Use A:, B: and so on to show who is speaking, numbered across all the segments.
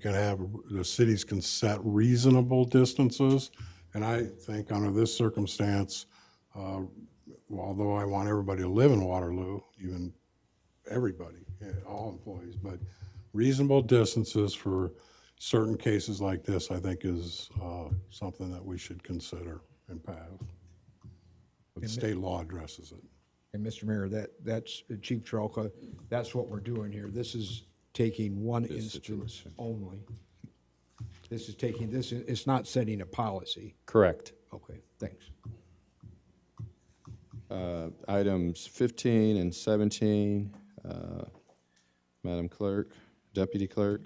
A: can have, the cities can set reasonable distances. And I think under this circumstance, uh, although I want everybody to live in Waterloo, even everybody, yeah, all employees, but reasonable distances for certain cases like this, I think is uh, something that we should consider and pass. But state law addresses it.
B: And Mr. Mayor, that, that's, uh, Chief Trelka, that's what we're doing here. This is taking one instance only. This is taking, this, is- it's not setting a policy.
C: Correct.
B: Okay, thanks.
C: Items 15 and 17, uh, Madam Clerk, Deputy Clerk.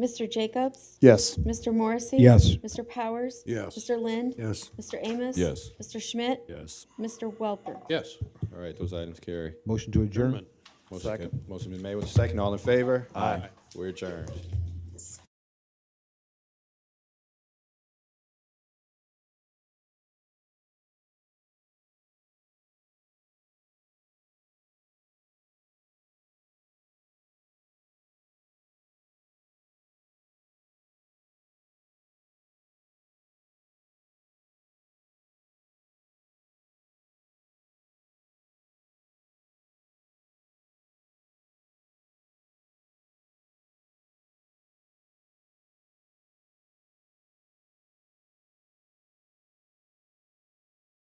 D: Mr. Jacobs?
E: Yes.
D: Mr. Morrissey?
B: Yes.
D: Mr. Powers?
A: Yes.
D: Mr. Lind?
A: Yes.
D: Mr. Amos?
F: Yes.
D: Mr. Schmidt?
F: Yes.
D: Mr. Welper?
C: Yes. All right, those items carry.
B: Motion to adjourn?
C: Motion ca- Motion been made with second. All in favor? Aye. We're adjourned.